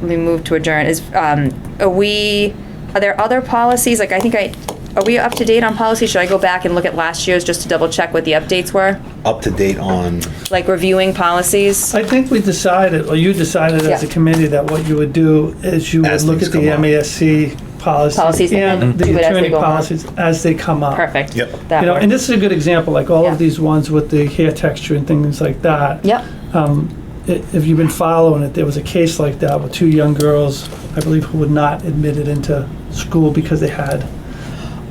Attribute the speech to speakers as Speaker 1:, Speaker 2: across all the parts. Speaker 1: we move to adjourn, is, um, are we, are there other policies, like, I think I, are we up to date on policy? Should I go back and look at last year's just to double check what the updates were?
Speaker 2: up to date on,
Speaker 1: Like reviewing policies?
Speaker 3: I think we decided, or you decided as a
Speaker 1: Yeah.
Speaker 3: committee, that what you would do is you would
Speaker 2: As
Speaker 3: look
Speaker 2: things
Speaker 3: at the
Speaker 2: come up.
Speaker 3: MASC
Speaker 1: Policies
Speaker 3: policies
Speaker 1: and
Speaker 3: and
Speaker 1: then do
Speaker 3: the
Speaker 1: it as they
Speaker 3: attorney
Speaker 1: go on.
Speaker 3: policies as they come up.
Speaker 1: Perfect.
Speaker 2: Yep.
Speaker 1: That
Speaker 3: You know, and
Speaker 1: works.
Speaker 3: this is a good example, like all
Speaker 1: Yeah.
Speaker 3: of these ones with the hair texture and things like that.
Speaker 1: Yep,
Speaker 3: i- if you've been following it, there was a case like that with two young girls, I believe, who were not admitted into school because they had,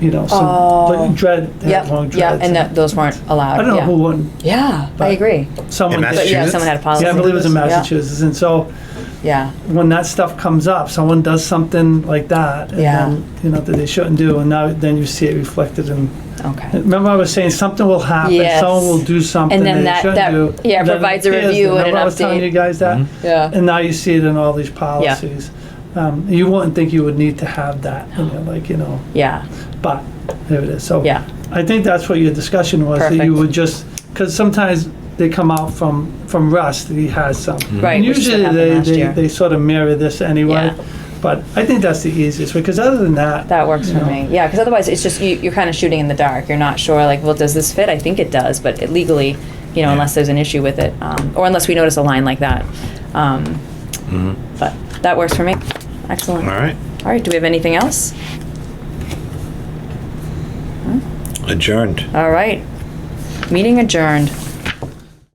Speaker 3: you know, some like, dread, they
Speaker 1: yep,
Speaker 3: had long
Speaker 1: Oh. yeah,
Speaker 3: dreads.
Speaker 1: and that, those weren't allowed,
Speaker 3: I
Speaker 1: yeah.
Speaker 3: don't know who won.
Speaker 1: Yeah, I agree.
Speaker 3: Someone
Speaker 2: In
Speaker 3: did.
Speaker 1: But yeah,
Speaker 2: Massachusetts?
Speaker 1: someone had a policy.
Speaker 3: Yeah, I believe it was in
Speaker 1: Yeah,
Speaker 3: Massachusetts. And so
Speaker 1: Yeah,
Speaker 3: when that stuff comes up, someone does something like that, and
Speaker 1: Yeah.
Speaker 3: then, you know, that they shouldn't do, and now then you see it reflected in.
Speaker 1: okay.
Speaker 3: Remember, I was saying something will happen,
Speaker 1: Yes.
Speaker 3: someone will do something
Speaker 1: then
Speaker 3: they
Speaker 1: that-
Speaker 3: shouldn't
Speaker 1: that-
Speaker 3: do.
Speaker 1: yeah,
Speaker 3: and then it
Speaker 1: provides a
Speaker 3: appears.
Speaker 1: review and an
Speaker 3: Remember I was telling
Speaker 1: update. Mm-hmm.
Speaker 3: you guys that.
Speaker 1: Yeah.
Speaker 3: And now you see it in all these policies. Um, you wouldn't think you would need to have that, you know, like, you know,
Speaker 1: Yeah,
Speaker 3: but there it is. So
Speaker 1: Yeah.
Speaker 3: I think that's what your discussion was, that you
Speaker 1: Perfect.
Speaker 3: would just, because sometimes they come out from, from Russ, that he has some.
Speaker 1: Right,
Speaker 3: And
Speaker 1: which is what
Speaker 3: Usually
Speaker 1: happened
Speaker 3: they,
Speaker 1: last
Speaker 3: they,
Speaker 1: year.
Speaker 3: they sort of mirror this anyway.
Speaker 1: Yeah.
Speaker 3: But I think that's the easiest, because other than that.
Speaker 1: that works
Speaker 3: you
Speaker 1: for
Speaker 3: know,
Speaker 1: me. Yeah, because otherwise it's just, you, you're kind of shooting in the dark. You're not sure, like, well, does this fit? I think it does, but it legally, you know, unless there's an issue with it, um, or unless we notice a line like that. Um, but that works for me. Excellent.
Speaker 2: Mm-hmm. all right,
Speaker 1: All right, do we have anything else?
Speaker 2: adjourned.
Speaker 1: All right. Meeting adjourned.